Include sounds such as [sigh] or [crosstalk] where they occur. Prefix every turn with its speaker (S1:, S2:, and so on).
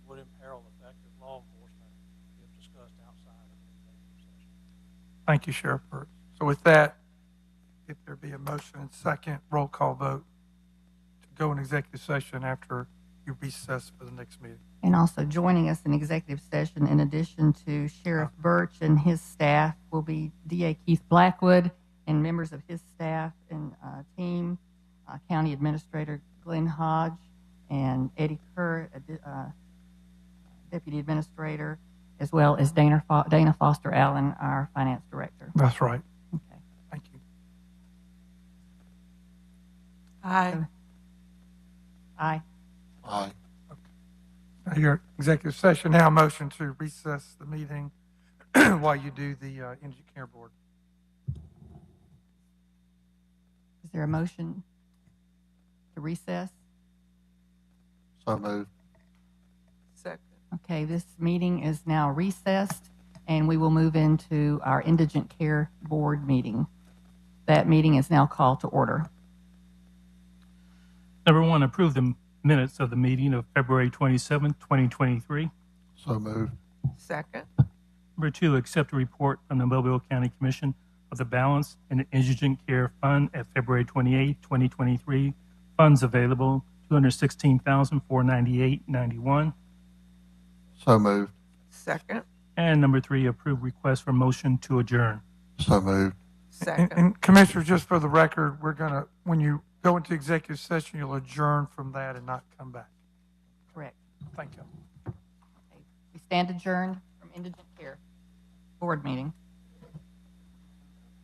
S1: Thank you, Sheriff Burt. So with that, if there be a motion and second, roll call vote to go in executive session after you recess for the next meeting.
S2: And also joining us in executive session, in addition to Sheriff Birch and his staff, will be DA Keith Blackwood and members of his staff and uh, team, uh, County Administrator Glenn Hodge and Eddie Kerr, uh, di- uh, Deputy Administrator, as well as Dana Fo- Dana Foster Allen, our Finance Director.
S1: That's right.
S2: Okay.
S1: Thank you.
S2: Aye. Aye.
S3: Aye.
S1: Now, Your executive session now, motion to recess the meeting [clears throat] while you do the uh, Energy Care Board.
S2: Is there a motion to recess?
S3: So moved.
S2: Okay, this meeting is now recessed, and we will move into our Indigent Care Board meeting. That meeting is now called to order.
S4: Number one, approve the minutes of the meeting of February 27, 2023.
S3: So moved.
S5: Second,
S4: Number two, accept a report from the Mobile County Commission of the balance in the indigent care fund at February 28, 2023. Funds available, 216498 91
S3: So moved.
S5: second,
S4: And number three, approve request for motion to adjourn.
S3: So moved.
S1: And-
S5: second,
S1: And Commissioner, just for the record, we're gonna, when you go into executive session, you'll adjourn from that and not come back.
S2: Correct.
S1: Thank you.
S2: We stand adjourned from Indigent Care Board meeting.